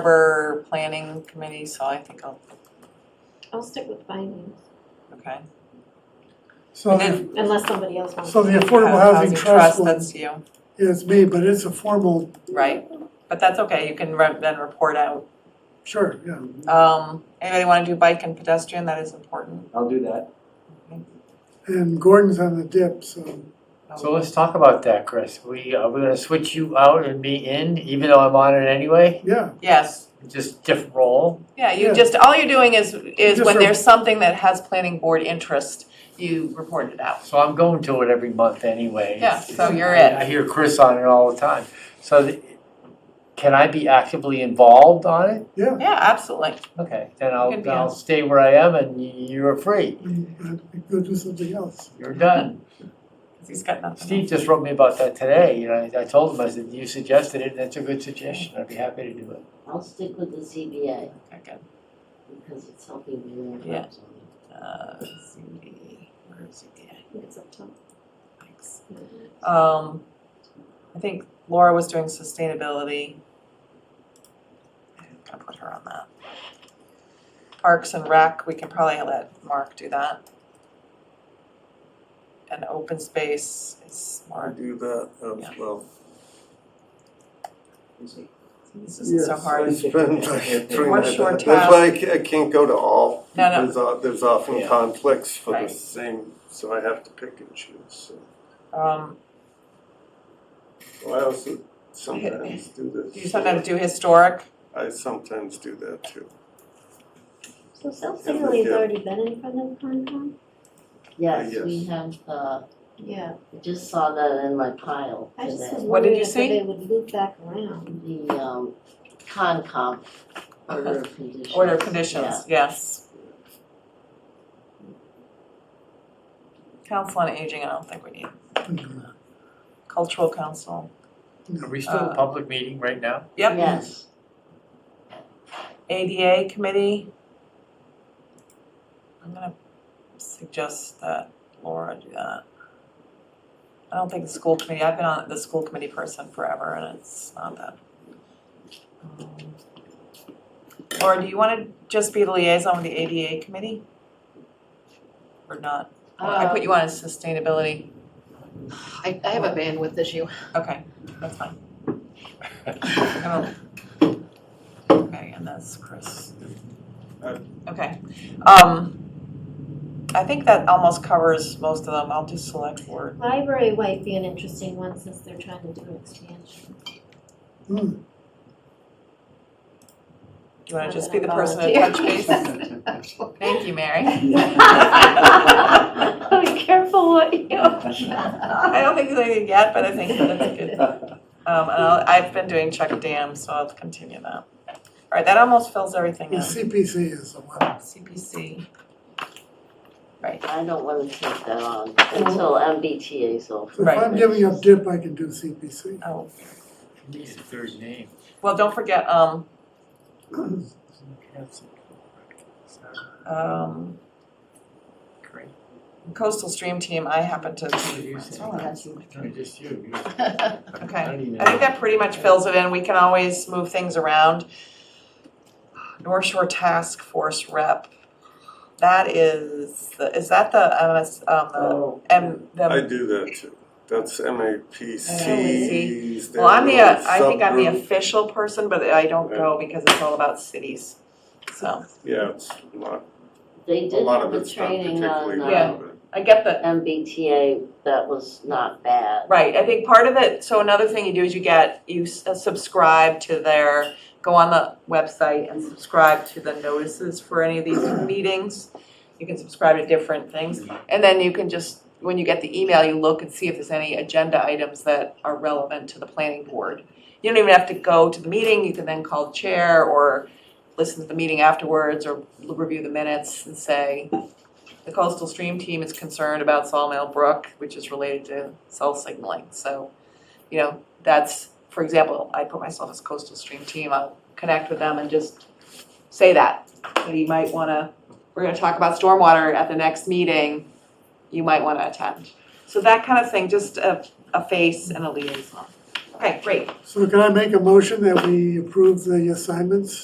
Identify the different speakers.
Speaker 1: Harbor Planning Committee, so I think I'll,
Speaker 2: I'll stick with finance,
Speaker 1: okay.
Speaker 3: So,
Speaker 1: And
Speaker 3: the-
Speaker 1: then
Speaker 2: unless somebody else wants.
Speaker 3: so the
Speaker 2: to.
Speaker 3: Affordable Housing Trust one
Speaker 1: That's you,
Speaker 3: is me, but it's a formal,
Speaker 1: right? But that's okay, you can re- then report out.
Speaker 3: sure, yeah.
Speaker 1: Um, anybody wanna do bike and pedestrian, that is important.
Speaker 4: I'll do that.
Speaker 3: And Gordon's on the dip, so,
Speaker 5: So let's talk about that, Chris. We, uh, we're gonna switch you out and me in, even though I'm on it anyway,
Speaker 3: yeah,
Speaker 1: Yes,
Speaker 5: just different role.
Speaker 1: yeah, you
Speaker 3: Yeah.
Speaker 1: just, all you're doing is, is
Speaker 3: Just
Speaker 1: when
Speaker 3: re-
Speaker 1: there's something that has planning board interest, you report it out.
Speaker 5: So I'm going to it every month anyway.
Speaker 1: Yeah, so you're
Speaker 5: I-
Speaker 1: it.
Speaker 5: I hear Chris on it all the time. So th- can I be actively involved on it?
Speaker 1: Yeah, absolutely.
Speaker 5: Okay, then
Speaker 1: can
Speaker 5: I'll,
Speaker 1: be
Speaker 5: I'll
Speaker 1: on.
Speaker 5: stay where I am and y- you're free.
Speaker 3: and I could go do something else.
Speaker 5: You're done.
Speaker 1: 'Cause He's got nothing.
Speaker 5: Steve just wrote me about that today. You know, I I told him, I said, you suggested it. That's a good suggestion. I'd be happy to do it.
Speaker 6: I'll stick with the CBA
Speaker 1: Okay, good.
Speaker 6: because it's helping me learn.
Speaker 1: Yeah.
Speaker 6: something.
Speaker 1: Uh, ZBA, where is ZBA?
Speaker 2: I think it's up top.
Speaker 1: Thanks. Um, I think Laura was doing sustainability. I'm gonna put her on that. Parks and Rec, we can probably let Mark do that. And open space is
Speaker 7: I
Speaker 1: more,
Speaker 7: do that
Speaker 1: Yeah.
Speaker 7: as well.
Speaker 1: this isn't so
Speaker 7: Yes,
Speaker 1: hard.
Speaker 7: I spend like three
Speaker 1: One
Speaker 7: nights.
Speaker 1: short
Speaker 7: That's why I ca- I can't go to all.
Speaker 1: No, no.
Speaker 7: There's, uh, there's often
Speaker 5: Yeah.
Speaker 7: conflicts for the
Speaker 1: Right.
Speaker 7: same, so I have to pick and choose. So
Speaker 1: Um,
Speaker 7: Well, I also sometimes do this.
Speaker 1: do you sometimes do historic?
Speaker 7: I sometimes do that too.
Speaker 2: So self-signaling has already been in front of Concom?
Speaker 6: Yes,
Speaker 7: yes.
Speaker 6: we have, uh,
Speaker 2: Yeah.
Speaker 6: I just saw that in my pile
Speaker 2: I just was
Speaker 6: today.
Speaker 1: What did
Speaker 2: wondering
Speaker 1: you
Speaker 2: if
Speaker 1: see?
Speaker 2: they would loop back around.
Speaker 6: The, um, Concom, order of conditions.
Speaker 1: Order of conditions, yes. Council on Aging, I don't think we need. Cultural Council,
Speaker 5: Are we still
Speaker 1: Uh,
Speaker 5: a public meeting right now?
Speaker 6: Yeah.
Speaker 1: yep.
Speaker 6: Yes,
Speaker 1: ADA Committee. I'm gonna suggest that Laura do that. I don't think the school committee, I've been on the school committee person forever and it's not that. um, Laura, do you wanna just be the liaison with the ADA Committee? Or not? I put you on as sustainability.
Speaker 8: I, I have a bandwidth issue.
Speaker 1: Okay, that's fine. I will- Okay, and that's Chris. Okay, um, I think that almost covers most of them, I'll do select board.
Speaker 2: Library might be an interesting one since they're trying to do an expansion.
Speaker 3: Hmm,
Speaker 1: Do you wanna just be the person to touch base? Thank you, Mary.
Speaker 2: Be careful what you.
Speaker 1: I don't think there's anything yet, but I think that's a good. Um, and I'll, I've been doing Chuck Dam, so I'll continue that. Alright, that almost fills everything
Speaker 3: the
Speaker 1: in,
Speaker 3: CPC is the one.
Speaker 1: CPC.
Speaker 6: I don't wanna take that on until MBTA's over.
Speaker 3: So if I'm
Speaker 1: Right.
Speaker 3: giving up dip, I can do CPC.
Speaker 1: Oh,
Speaker 5: Needs a third name.
Speaker 1: well, don't forget, um,
Speaker 5: Great.
Speaker 1: um,
Speaker 5: uh,
Speaker 1: coastal stream team, I happen to.
Speaker 5: Just you. you-
Speaker 1: Okay.
Speaker 5: don't even
Speaker 1: I think
Speaker 5: know.
Speaker 1: that pretty much fills it in, we can always move things around. North Shore Task Force Rep, that is, the- is that the MS, um,
Speaker 7: Oh,
Speaker 1: the, M,
Speaker 7: I
Speaker 1: the,
Speaker 7: do that too. That's MAPCs.
Speaker 1: well, I'm the, uh,
Speaker 7: they're a
Speaker 1: I think I'm the
Speaker 7: subgroup.
Speaker 1: official person, but I don't go because it's all about cities. So,
Speaker 7: Yeah, it's a lot,
Speaker 6: They
Speaker 7: a
Speaker 6: did
Speaker 7: lot
Speaker 6: have
Speaker 7: of
Speaker 6: a
Speaker 7: it's not
Speaker 6: training
Speaker 7: particularly
Speaker 6: on,
Speaker 1: Yeah.
Speaker 6: uh,
Speaker 7: relevant.
Speaker 1: I get the,
Speaker 6: MBTA that was not bad.
Speaker 1: Right, I think part of it, so another thing you do is you get, you s- uh, subscribe to their, go on the website and subscribe to the notices for any of these meetings. You can subscribe to different things, and then you can just, when you get the email, you look and see if there's any agenda items that are relevant to the planning board. You don't even have to go to the meeting, you can then call the chair or listen to the meeting afterwards or l- review the minutes and say, the coastal stream team is concerned about Sawmill Brook, which is related to cell signaling, so, you know, that's, for example, I put myself as coastal stream team, I'll connect with them and just say that, that you might wanna, we're gonna talk about stormwater at the next meeting, you might wanna attend. So that kind of thing, just a, a face and a liaison. Okay, great.
Speaker 3: So can I make a motion that we approve the assignments?